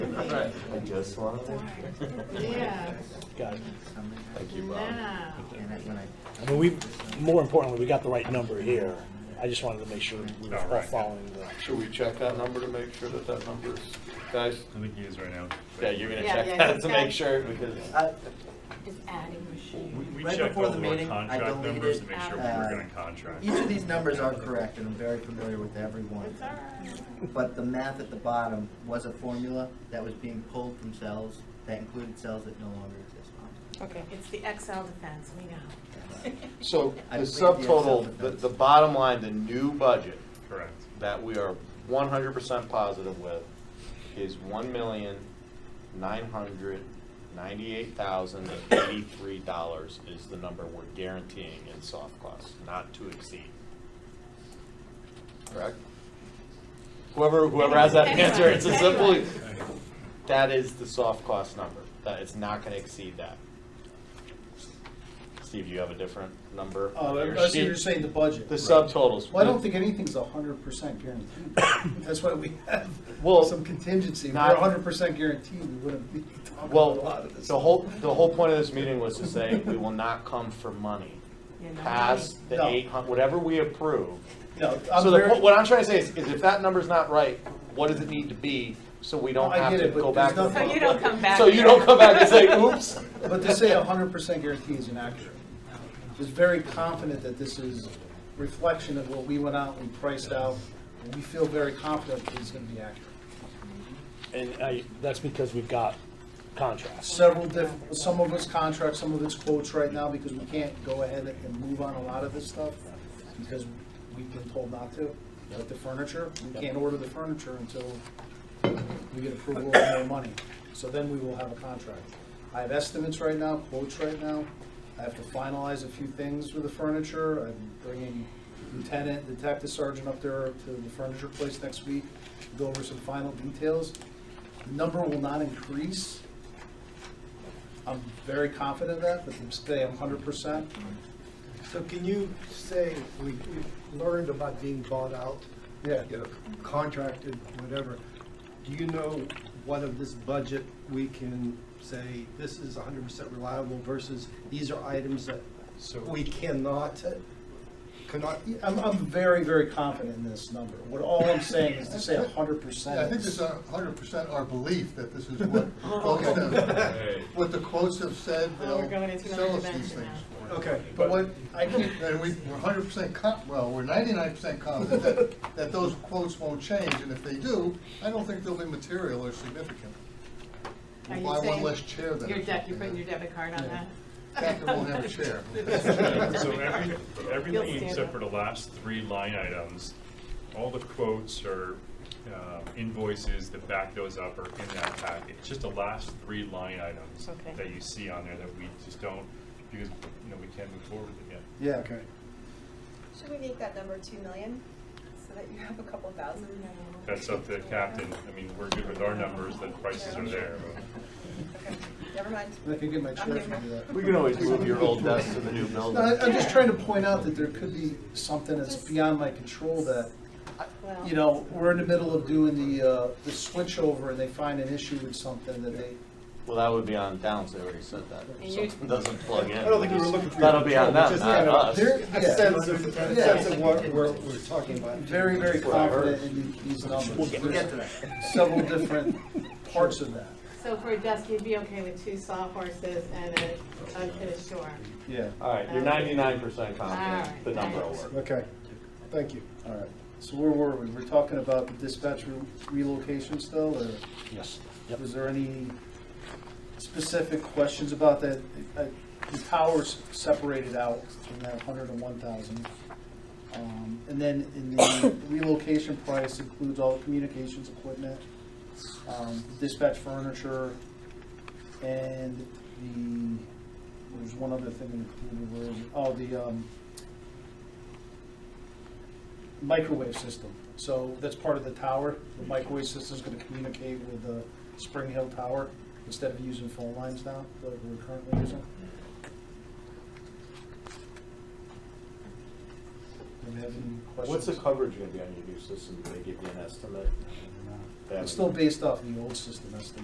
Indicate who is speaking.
Speaker 1: Right.
Speaker 2: I just want to.
Speaker 1: Yeah.
Speaker 3: Got it.
Speaker 2: Thank you, Bob.
Speaker 1: Now,
Speaker 3: I mean, we, more importantly, we got the right number here. I just wanted to make sure we were
Speaker 4: All
Speaker 3: all
Speaker 4: right.
Speaker 3: following the,
Speaker 2: Should we check that number to make sure that that number is, guys?
Speaker 4: I think he is right now.
Speaker 2: Yeah, you're gonna
Speaker 1: Yeah,
Speaker 2: check
Speaker 1: yeah,
Speaker 2: that
Speaker 1: he's
Speaker 2: to
Speaker 1: got-
Speaker 2: make sure because.
Speaker 1: is adding machine.
Speaker 4: We- We
Speaker 5: Right
Speaker 4: checked
Speaker 5: before
Speaker 4: all
Speaker 5: the
Speaker 4: of our
Speaker 5: meeting, I
Speaker 4: contract
Speaker 5: deleted,
Speaker 4: numbers to make sure we
Speaker 5: uh,
Speaker 4: were gonna contract.
Speaker 5: Each of these numbers are correct, and I'm very familiar with every one.
Speaker 1: It's all right.
Speaker 5: But the math at the bottom was a formula that was being pulled from cells, that included cells that no longer exist.
Speaker 1: Okay, it's the XL defense, we know.
Speaker 2: So
Speaker 5: I
Speaker 2: the
Speaker 5: believe the Excel
Speaker 2: subtotal, the,
Speaker 5: defense.
Speaker 2: the bottom line, the new budget
Speaker 4: Correct.
Speaker 2: that we are one hundred percent positive with is one million, nine hundred, ninety-eight thousand, eighty-three dollars is the number we're guaranteeing in soft costs, not to exceed. Correct? Whoever, whoever has that answer, it's a simple, that is the soft cost number, that it's not gonna exceed that. Steve, do you have a different number?
Speaker 6: Uh,
Speaker 2: on your
Speaker 6: I see
Speaker 2: sheet?
Speaker 6: you're saying the budget.
Speaker 2: The subtotals.
Speaker 6: Well, I don't think anything's a hundred percent guaranteed. That's why we have
Speaker 2: Well,
Speaker 6: some contingency. If
Speaker 2: not-
Speaker 6: we're a hundred percent guaranteed, we wouldn't be talking about a lot
Speaker 2: Well,
Speaker 6: of this.
Speaker 2: the whole, the whole point of this meeting was to say, we will not come for money.
Speaker 1: You're not
Speaker 2: Pass the
Speaker 6: No.
Speaker 2: eight hun, whatever we approve.
Speaker 6: No, I'm
Speaker 2: So the,
Speaker 6: very-
Speaker 2: po- what I'm trying to say is, is if that number's not right, what does it need to be, so we don't
Speaker 6: I
Speaker 2: have
Speaker 6: get
Speaker 2: to
Speaker 6: it, but
Speaker 2: go
Speaker 6: there's
Speaker 2: back? to the-
Speaker 1: So
Speaker 6: nothing-
Speaker 1: you don't come back
Speaker 2: So you
Speaker 1: here.
Speaker 2: don't come back and say, oops.
Speaker 6: But to say a hundred percent guarantee is inaccurate. Just very confident that this is reflection of what we went out and priced out, and we feel very confident that it's gonna be accurate.
Speaker 3: and I, that's because we've got contrasts.
Speaker 6: Several diff, some of it's contracts, some of it's quotes right now, because we can't go ahead and move on a lot of this stuff, because we've been told not to. Like the furniture, we can't order the furniture until we get approval of more money. So then we will have a contract. I have estimates right now, quotes right now. I have to finalize a few things with the furniture. I'm bringing Lieutenant, Detective Sergeant up there to the furniture place next week, go over some final details. The number will not increase. I'm very confident of that, but to say I'm hundred percent,
Speaker 7: So can you say, we we learned about being bought out,
Speaker 6: yeah.
Speaker 7: you know, contracted, whatever. Do you know what of this budget we can say, this is hundred percent reliable versus these are items that
Speaker 4: So-
Speaker 7: we cannot, cannot,
Speaker 6: I'm, I'm very, very confident in this number. What all I'm saying is to say hundred percent.
Speaker 8: Yeah, I think it's
Speaker 7: uh,
Speaker 8: a hundred percent our belief that this is what folks have, what the quotes have said,
Speaker 1: Oh, we're
Speaker 8: they'll
Speaker 1: going into
Speaker 8: sell
Speaker 1: another
Speaker 8: us these
Speaker 1: dimension
Speaker 8: things for.
Speaker 7: okay.
Speaker 6: But what, I can't,
Speaker 8: And we, we're hundred percent com, well, we're ninety-nine percent confident that, that those quotes won't change, and if they do, I don't think they'll be material or significant. We'll
Speaker 1: Are you
Speaker 8: buy one
Speaker 1: saying
Speaker 8: less chair than.
Speaker 1: Your
Speaker 8: or
Speaker 1: deck,
Speaker 8: something,
Speaker 1: you're putting your
Speaker 8: and
Speaker 1: debit card on that?
Speaker 8: Catherine won't have a chair.
Speaker 4: So every,
Speaker 1: You'll
Speaker 4: everything
Speaker 1: stand
Speaker 4: except
Speaker 1: up.
Speaker 4: for the last three line items, all the quotes or uh, invoices that back those up are in that packet. It's just the last three line items
Speaker 1: Okay.
Speaker 4: that you see on there that we just don't, because, you know, we can't move forward with it yet.
Speaker 6: yeah, okay.
Speaker 9: Should we make that number two million, so that you have a couple thousand?
Speaker 4: That's up to the captain. I mean, we're good with our numbers, the prices are there.
Speaker 9: Okay, never mind.
Speaker 6: I can get my chair
Speaker 9: Okay.
Speaker 6: if you do that.
Speaker 2: We can always move your old desk to the new
Speaker 6: No, I,
Speaker 2: building.
Speaker 6: I'm just trying to point out that there could be something that's beyond my control that,
Speaker 1: Well,
Speaker 6: you know, we're in the middle of doing the, uh, the switch over and they find an issue with something that they,
Speaker 2: Well, that would be on Downs, they already said that. If
Speaker 1: You-
Speaker 2: Something doesn't plug in.
Speaker 7: I don't think we were looking for. your
Speaker 2: That'll be on
Speaker 7: control,
Speaker 2: them,
Speaker 7: just,
Speaker 2: not
Speaker 7: you know,
Speaker 2: us.
Speaker 6: There-
Speaker 7: A
Speaker 6: yeah.
Speaker 7: sense of, a
Speaker 6: Yeah.
Speaker 7: sense of what we're, we're talking about.
Speaker 6: very, very confident in the- these numbers.
Speaker 5: We'll get to
Speaker 6: There's
Speaker 5: that.
Speaker 6: Several different parts of that,
Speaker 1: so for a desk, you'd be okay with two sawhorses and a, a bit of shore.
Speaker 6: yeah.
Speaker 2: All right, you're ninety-nine percent confident
Speaker 1: Alright,
Speaker 2: the number will
Speaker 1: thanks.
Speaker 2: work.
Speaker 6: Okay, thank you. All right, so where were we? We're talking about the dispatch re- relocation still, or
Speaker 3: Yes. Yep.
Speaker 6: was there any specific questions about that? Uh, The towers separated out from that hundred and one thousand. Um, And then in the relocation price includes all the communications equipment, um, dispatch furniture, and the, there's one other thing included, where is it? Oh, the, um, microwave system. So that's part of the tower. The microwave system's gonna communicate with the Spring Hill Tower instead of using phone lines now, like we're currently using. Do we have any
Speaker 2: What's the
Speaker 6: questions?
Speaker 2: coverage gonna be on your new system? Do they give you an estimate?
Speaker 6: It's still based off the old system, that's the